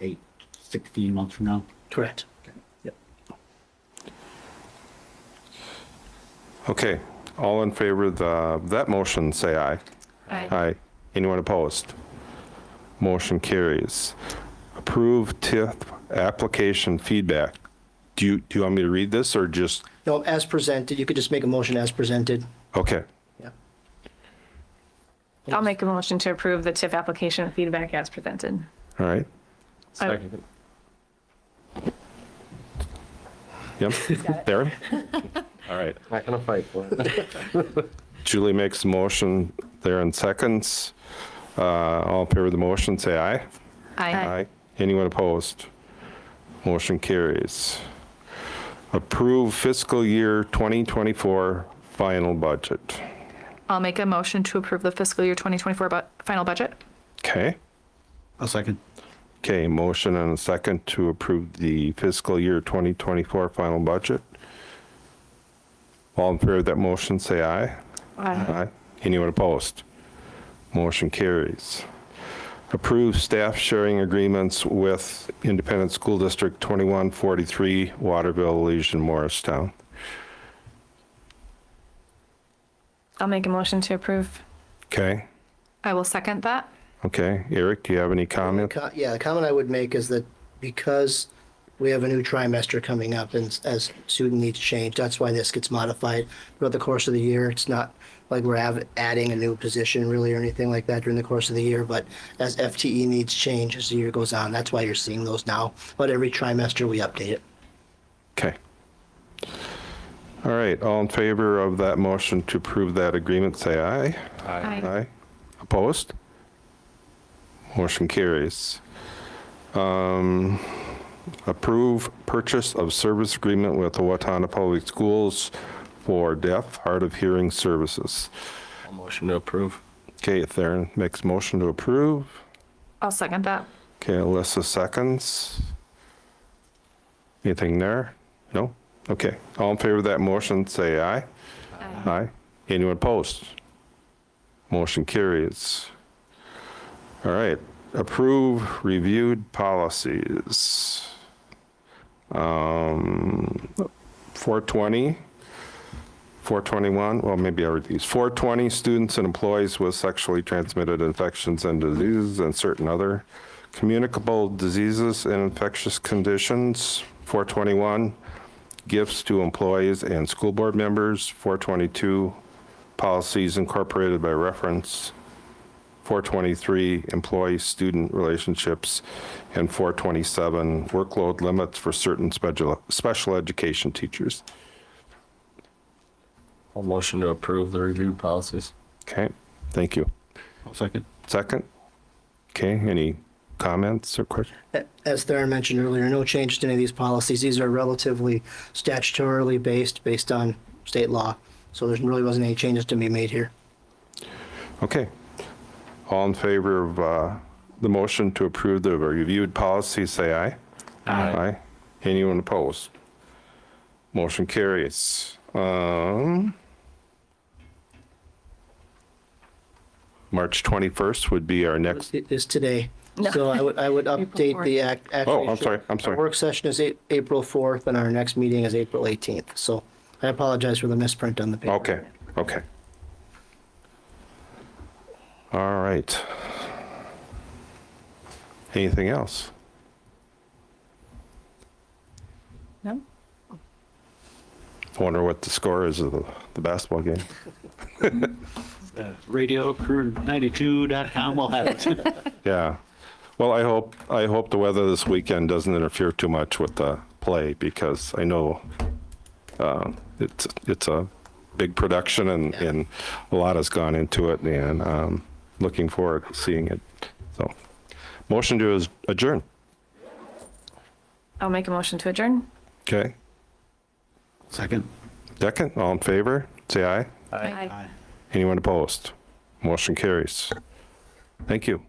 eight, 16 months from now. Correct. Okay, all in favor of the- that motion, say aye. Aye. Anyone opposed? Motion carries. Approve TIF application feedback. Do you, do you want me to read this or just, No, as presented, you could just make a motion as presented. okay, Yeah. I'll make a motion to approve the TIF application with feedback as presented. all right, I- yep. Darren? All right. Not gonna fight for it. Julie makes a motion, Darren seconds. Uh, All in favor of the motion, say aye. Aye. Anyone opposed? Motion carries. Approve fiscal year 2024 final budget. I'll make a motion to approve the fiscal year 2024 bu- final budget. Okay? A second. Okay, motion and a second to approve the fiscal year 2024 final budget. All in favor of that motion, say aye. Aye. Anyone opposed? Motion carries. Approve staff sharing agreements with Independent School District 2143, Waterville, Legion, Morristown. I'll make a motion to approve. Okay, I will second that. okay. Eric, do you have any comment? Co- Yeah, the comment I would make is that because we have a new trimester coming up and s- as student needs change, that's why this gets modified throughout the course of the year. It's not like we're av- adding a new position really or anything like that during the course of the year, but as FTE needs change as the year goes on, that's why you're seeing those now. But every trimester, we update it. Okay. All right, all in favor of that motion to approve that agreement, say aye. Aye. Aye. Opposed? Motion carries. Um, Approve purchase of service agreement with the Watana Public Schools for deaf, hard of hearing services. Motion to approve. Okay, Theron makes motion to approve. I'll second that. Okay, Alyssa seconds. Anything there? No? Okay, all in favor of that motion, say aye. Aye. Anyone opposed? Motion carries. All right, approve reviewed policies. Um, 420, 421, well, maybe I read these. 420, students and employees with sexually transmitted infections and diseases and certain other communicable diseases and infectious conditions. 421, gifts to employees and school board members, 422, policies incorporated by reference, 423, employee-student relationships, and 427, workload limits for certain special, special education teachers. I'll motion to approve the review policies. Okay, thank you. A second. Second? Okay, any comments or questions? As Theron mentioned earlier, no change to any of these policies. These are relatively statutorily based, based on state law. So there really wasn't any changes to be made here. Okay. All in favor of uh, the motion to approve the reviewed policy, say aye. Aye. Anyone opposed? Motion carries. Um, March 21st would be our next, It is today. No. So I would, I would update the act. Oh, I'm sorry, I'm sorry. Our work session is A- April 4th and our next meeting is April 18th. So I apologize for the misprint on the paper. okay, okay. All right. Anything else? No? Wonder what the score is of the- the basketball game? Radio crew92.com will have it. Yeah. Well, I hope, I hope the weather this weekend doesn't interfere too much with the play because I know uh, it's, it's a big production and, Yeah. and a lot has gone into it and um, looking forward to seeing it. So, motion to is- adjourn. I'll make a motion to adjourn. Okay. Second. Second, all in favor, say aye. Aye. Anyone opposed? Motion carries. Thank you.